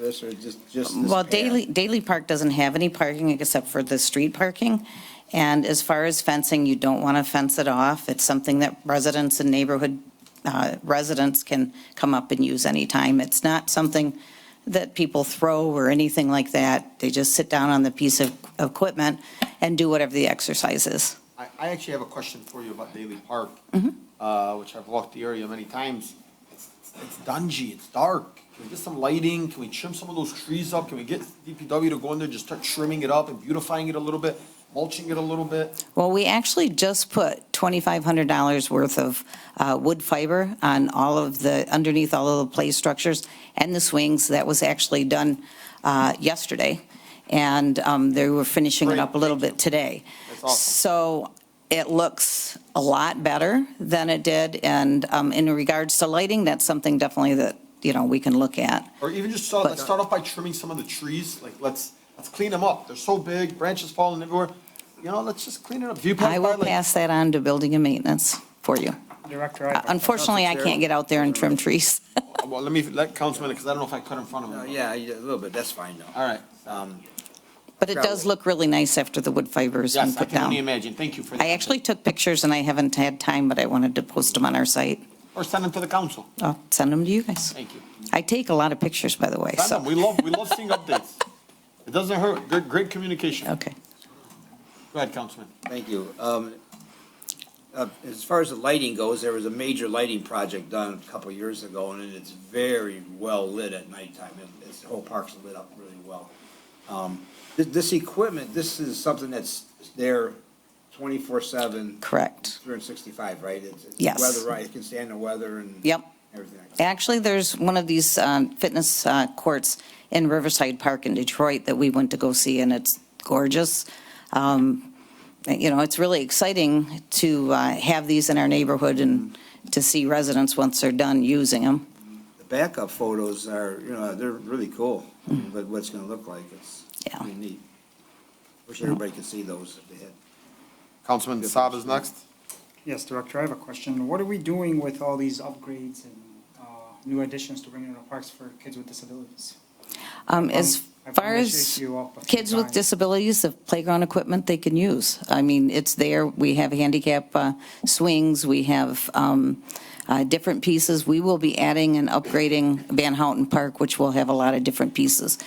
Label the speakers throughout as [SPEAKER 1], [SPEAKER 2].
[SPEAKER 1] this or just, just? this
[SPEAKER 2] Well,
[SPEAKER 1] path?
[SPEAKER 2] Daily, Daily Park doesn't have any parking except for the street parking. And as far as fencing, you don't want to fence it off. It's something that residents and neighborhood uh, residents can come up and use anytime. It's not something that people throw or anything like that. They just sit down on the piece of equipment and do whatever the exercise is.
[SPEAKER 3] I, I actually have a question for you about Daly Park,
[SPEAKER 2] Mm-hmm.
[SPEAKER 3] uh, which I've walked the area many times. It's, it's- it's dungy, it's dark. Can we get some lighting? Can we trim some of those trees up? Can we get DPW to go in there, just start trimming it up and beautifying it a little bit, mulching it a little bit?
[SPEAKER 2] Well, we actually just put $2,500 worth of uh, wood fiber on all of the, underneath all of the play structures and the swings. That was actually done uh, yesterday, and um, they were finishing it up a little bit today.
[SPEAKER 3] That's awesome.
[SPEAKER 2] So it looks a lot better than it did, and um, in regards to lighting, that's something definitely that, you know, we can look at.
[SPEAKER 3] Or even just start, let's start off by trimming some of the trees, like, let's, let's clean them up. They're so big, branches falling everywhere. You know, let's just clean it up. Viewpoint
[SPEAKER 2] I will
[SPEAKER 3] by, like-
[SPEAKER 2] pass that on to building and maintenance for you.
[SPEAKER 4] Director,
[SPEAKER 2] Uh,
[SPEAKER 4] I-
[SPEAKER 2] Unfortunately, I can't get out there and trim trees.
[SPEAKER 3] Well, let me, let Councilman, because I don't know if I cut in front of
[SPEAKER 1] Uh,
[SPEAKER 3] him.
[SPEAKER 1] Yeah, yeah, a little bit, that's fine though.
[SPEAKER 3] All right.
[SPEAKER 1] Um,
[SPEAKER 2] But it does
[SPEAKER 1] Probably.
[SPEAKER 2] look really nice after the wood fiber has been
[SPEAKER 3] Yes, I
[SPEAKER 2] put
[SPEAKER 3] can only
[SPEAKER 2] down.
[SPEAKER 3] imagine. Thank you for that.
[SPEAKER 2] I actually took pictures and I haven't had time, but I wanted to post them on our site.
[SPEAKER 3] Or send them to the council.
[SPEAKER 2] I'll send them to you guys.
[SPEAKER 3] Thank you.
[SPEAKER 2] I take a lot of pictures, by the way,
[SPEAKER 3] Send them.
[SPEAKER 2] so,
[SPEAKER 3] We love, we love seeing updates. It doesn't hurt. Good, great communication.
[SPEAKER 2] okay.
[SPEAKER 3] Go ahead, Councilman.
[SPEAKER 1] Thank you. Um, uh, As far as the lighting goes, there was a major lighting project done a couple years ago, and it's very well lit at nighttime. It- It's, the whole park's lit up really well. Um, thi- This equipment, this is something that's there twenty-four seven,
[SPEAKER 2] Correct.
[SPEAKER 1] three hundred and sixty-five, right? It's- it's
[SPEAKER 2] Yes.
[SPEAKER 1] Weather, right, it can stand the weather and.
[SPEAKER 2] Yep.
[SPEAKER 1] Everything. like that.
[SPEAKER 2] Actually, there's one of these um, fitness uh, courts in Riverside Park in Detroit that we went to go see, and it's gorgeous. Um, You know, it's really exciting to uh, have these in our neighborhood and to see residents, once they're done using them.
[SPEAKER 1] The backup photos are, you know, they're really cool, but what it's gonna look like, it's
[SPEAKER 2] Yeah.
[SPEAKER 1] pretty neat. Wish everybody could see those if they had.
[SPEAKER 3] Councilman Saab is next.
[SPEAKER 4] yes, Director, I have a question. What are we doing with all these upgrades and uh, new additions to bringing into parks for kids with disabilities?
[SPEAKER 2] Um, As
[SPEAKER 4] I've brought
[SPEAKER 2] far
[SPEAKER 4] this
[SPEAKER 2] as
[SPEAKER 4] issue up a few
[SPEAKER 2] kids with
[SPEAKER 4] times.
[SPEAKER 2] disabilities, the playground equipment they can use. I mean, it's there, we have handicap uh, swings, we have um, uh, different pieces. We will be adding and upgrading Van Houten Park, which will have a lot of different pieces,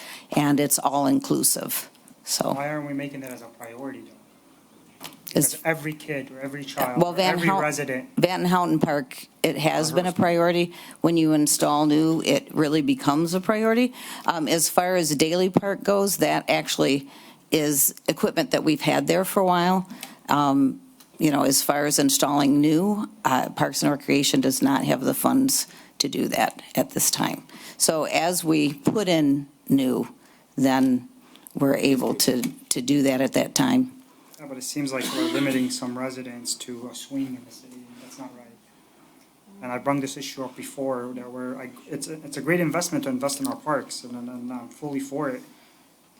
[SPEAKER 2] and it's all-inclusive, so.
[SPEAKER 4] Why aren't we making that as a priority? though?
[SPEAKER 2] it's-
[SPEAKER 4] Because every kid or every child,
[SPEAKER 2] Well,
[SPEAKER 4] or
[SPEAKER 2] Van
[SPEAKER 4] every
[SPEAKER 2] Houten-
[SPEAKER 4] resident,
[SPEAKER 2] Van Houten Park, it has been a priority. When you install new, it really becomes a priority. Um, As far as Daily Park goes, that actually is equipment that we've had there for a while. Um, You know, as far as installing new, uh, Parks and Recreation does not have the funds to do that at this time. So as we put in new, then we're able to, to do that at that time.
[SPEAKER 4] Yeah, but it seems like we're limiting some residents to a swing in the city, and that's not right. And I brought this issue up before, that we're, I- it's, a- it's a great investment to invest in our parks, and and I'm fully for it,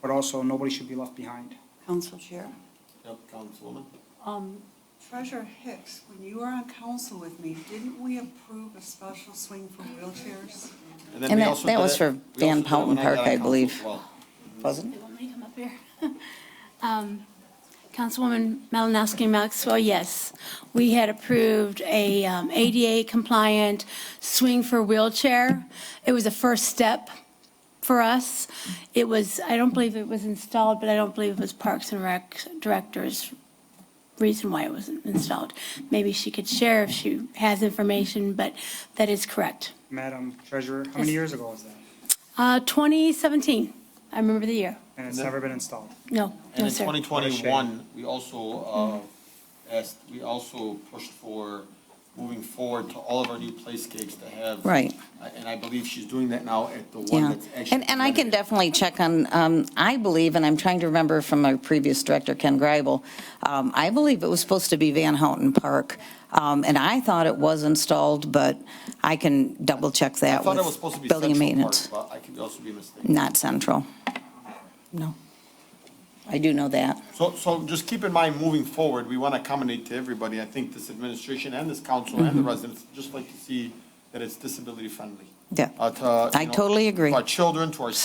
[SPEAKER 4] but also nobody should be left behind.
[SPEAKER 5] Council Chair.
[SPEAKER 3] Yep, Councilwoman.
[SPEAKER 5] Um, Treasurer Hicks, when you were on council with me, didn't we approve a special swing for wheelchairs?
[SPEAKER 3] then
[SPEAKER 2] And
[SPEAKER 3] we
[SPEAKER 2] that-
[SPEAKER 3] also
[SPEAKER 2] that
[SPEAKER 3] did
[SPEAKER 2] was
[SPEAKER 3] it-
[SPEAKER 2] for
[SPEAKER 3] we also
[SPEAKER 2] Van
[SPEAKER 3] did it
[SPEAKER 2] Houten
[SPEAKER 3] when
[SPEAKER 2] Park,
[SPEAKER 3] got on
[SPEAKER 2] I
[SPEAKER 3] council
[SPEAKER 2] believe.
[SPEAKER 3] as well.
[SPEAKER 2] Wasn't it?
[SPEAKER 6] You want me to come up here? Um, Councilwoman Malinowski Maxwell, yes. We had approved a um, ADA compliant swing for wheelchair. It was a first step for us. It was, I don't believe it was installed, but I don't believe it was Parks and Rec Director's reason why it wasn't installed. Maybe she could share if she has information, but that is correct.
[SPEAKER 4] Madam Treasurer, how many
[SPEAKER 6] Yes.
[SPEAKER 4] years ago was that?
[SPEAKER 6] Uh, 2017, I remember the year.
[SPEAKER 4] And it's never been installed.
[SPEAKER 6] No,
[SPEAKER 3] And
[SPEAKER 6] no,
[SPEAKER 3] in
[SPEAKER 6] sir.
[SPEAKER 3] twenty twenty-one, we also, uh, asked, we also pushed for moving forward to all of our new playscapes to have.
[SPEAKER 2] Right.
[SPEAKER 3] I- And I believe she's doing that now at the one
[SPEAKER 2] Yeah,
[SPEAKER 3] that's actually.
[SPEAKER 2] and, and I can
[SPEAKER 3] renovated.
[SPEAKER 2] definitely check on, um, I believe, and I'm trying to remember from our previous director, Ken Greibel, um, I believe it was supposed to be Van Houten Park, um, and I thought it was installed, but I can double check
[SPEAKER 3] I
[SPEAKER 2] that
[SPEAKER 3] thought it was supposed to
[SPEAKER 2] with
[SPEAKER 3] be
[SPEAKER 2] building and
[SPEAKER 3] Central Park,
[SPEAKER 2] maintenance.
[SPEAKER 3] but I could also be mistaken.
[SPEAKER 2] Not central. No. I do know that.
[SPEAKER 3] So, so just keep in mind, moving forward, we want to accommodate to everybody. I think this administration and this council
[SPEAKER 2] Mm-hmm.
[SPEAKER 3] and the residents just like to see that it's disability friendly.
[SPEAKER 2] Yeah.
[SPEAKER 3] Uh, to, you
[SPEAKER 2] I
[SPEAKER 3] know,
[SPEAKER 2] totally agree.
[SPEAKER 3] To our children, to our